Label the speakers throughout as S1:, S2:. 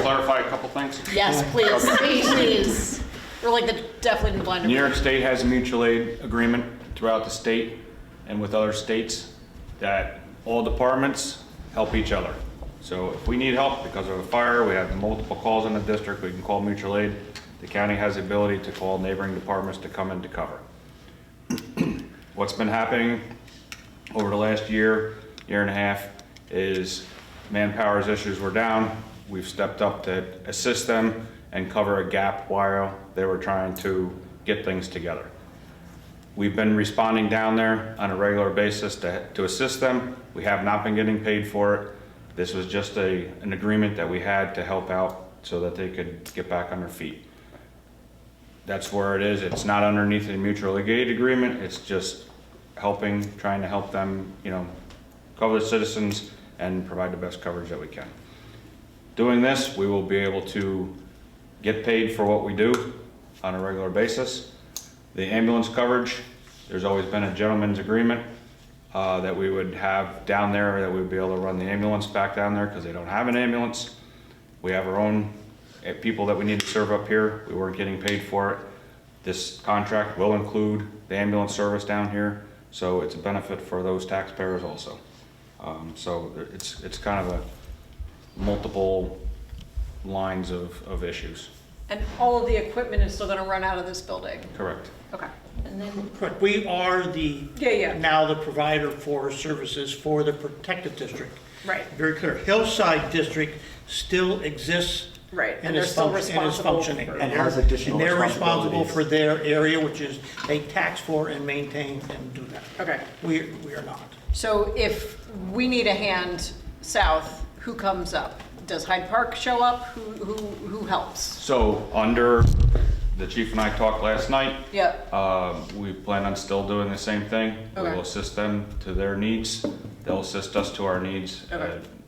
S1: clarify a couple things?
S2: Yes, please, please. We're like the definitely in the blind.
S1: New York State has a mutual aid agreement throughout the state and with other states that all departments help each other. So if we need help because of a fire, we have multiple calls in the district, we can call mutual aid. The county has the ability to call neighboring departments to come in to cover. What's been happening over the last year, year and a half, is manpower's issues were down. We've stepped up to assist them and cover a gap while they were trying to get things together. We've been responding down there on a regular basis to, to assist them. We have not been getting paid for it. This was just a, an agreement that we had to help out so that they could get back on their feet. That's where it is. It's not underneath a mutual aid agreement. It's just helping, trying to help them, you know, cover the citizens and provide the best coverage that we can. Doing this, we will be able to get paid for what we do on a regular basis. The ambulance coverage, there's always been a gentleman's agreement uh, that we would have down there, that we'd be able to run the ambulance back down there because they don't have an ambulance. We have our own uh, people that we need to serve up here. We weren't getting paid for it. This contract will include the ambulance service down here, so it's a benefit for those taxpayers also. Um, So there- it's, it's kind of a multiple lines of, of issues.
S2: And all of the equipment is still gonna run out of this building.
S1: Correct.
S2: Okay.
S3: And then,
S4: Correct, we are the.
S2: Yeah, yeah.
S4: Now the provider for services for the protected district.
S2: Right.
S4: Very clear, Hillside District still exists.
S2: Right, and
S4: And
S2: they're
S4: is
S2: still
S4: function, and is
S2: responsible.
S4: functioning.
S2: for-
S5: And has additional
S4: And they're responsible
S5: responsibilities.
S4: for their area, which is they tax for and maintain and do that.
S2: Okay.
S4: We, we are not.
S2: So if we need a hand south, who comes up? Does Hyde Park show up? Who, who, who helps?
S1: So under, the chief and I talked last night.
S2: Yep.
S1: Uh, We plan on still doing the same thing. We
S2: Okay.
S1: will assist them to their needs. They'll assist us to our needs uh,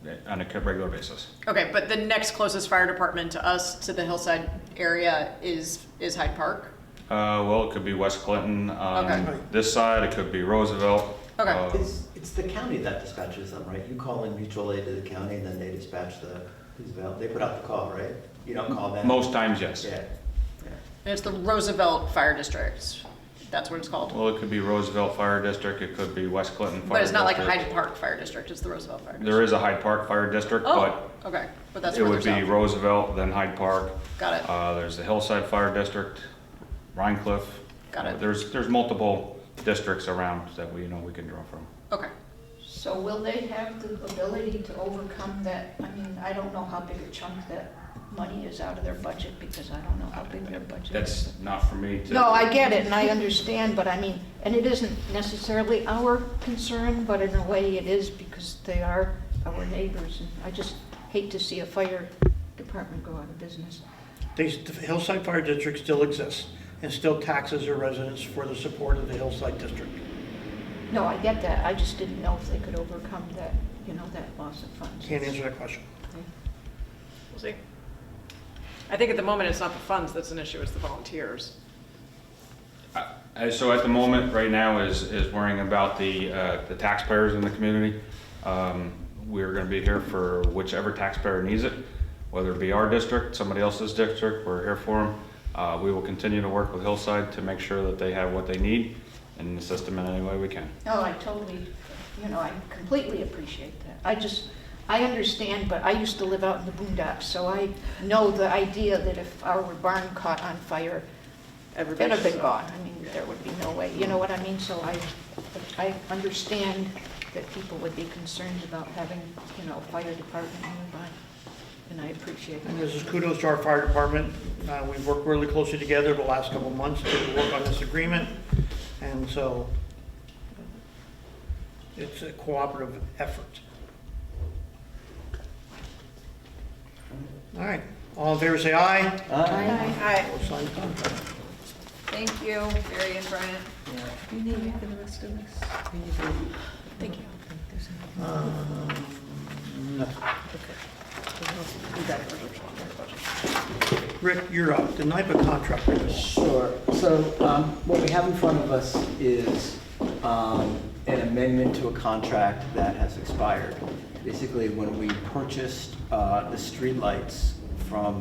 S2: Okay.
S1: on a regular basis.
S2: Okay, but the next closest fire department to us, to the hillside area, is, is Hyde Park?
S1: Uh, Well, it could be West Clinton
S2: Okay.
S1: on this side, it could be Roosevelt.
S2: Okay.
S1: Uh,
S5: It's, it's the county that dispatches them, right? You call in mutual aid to the county and then they dispatch the, who's avail- they put out the call, right? You don't call them?
S1: Most times, yes.
S5: Yeah, yeah.
S2: And it's the Roosevelt Fire District. That's what it's called.
S1: Well, it could be Roosevelt Fire District, it could be West Clinton Fire District.
S2: But it's not like Hyde Park Fire District, it's the Roosevelt Fire District.
S1: There is a Hyde Park Fire District, but
S2: Oh, okay, but that's
S1: It
S2: further
S1: would be
S2: south.
S1: Roosevelt, then Hyde Park.
S2: Got it.
S1: Uh, there's the Hillside Fire District, Rhine Cliff.
S2: Got it.
S1: There's, there's multiple districts around that we, you know, we can draw from.
S2: Okay.
S3: so will they have the ability to overcome that? I mean, I don't know how big a chunk that money is out of their budget because I don't know how big their budget is.
S1: That's not for me to.
S3: No, I get it and I understand, but I mean, and it isn't necessarily our concern, but in a way it is because they are our neighbors. And I just hate to see a fire department go out of business.
S4: They, the Hillside Fire District still exists and still taxes their residents for the support of the Hillside District.
S3: No, I get that. I just didn't know if they could overcome that, you know, that loss of funds.
S4: Can't answer that question.
S2: We'll see. I think at the moment, it's not the funds that's an issue, it's the volunteers.
S1: Uh, so at the moment, right now, is, is worrying about the, uh, the taxpayers in the community. Um, we're gonna be here for whichever taxpayer needs it, whether it be our district, somebody else's district, we're here for them. Uh, we will continue to work with Hillside to make sure that they have what they need and assist them in any way we can.
S3: No, I totally, you know, I completely appreciate that. I just, I understand, but I used to live out in the boondocks, so I know the idea that if our barn caught on fire, it'd have been gone. I mean, there would be no way, you know what I mean? So I, I understand that people would be concerned about having, you know, a fire department nearby, and I appreciate
S4: And
S3: that.
S4: this is kudos to our fire department. Uh, We've worked really closely together the last couple of months to work on this agreement, and so uh, it's a cooperative effort. All right, all in favor, say aye.
S3: Aye.
S2: Hi,
S4: All signed contract.
S2: thank you, Barry and Brian.
S6: You need me for the rest of this?
S2: Thank you.
S4: Rick, you're up. The NIPA contract.
S5: Uh,
S7: Sure. So um, what we have in front of us is um, an amendment to a contract that has expired. Basically, when we purchased uh, the streetlights from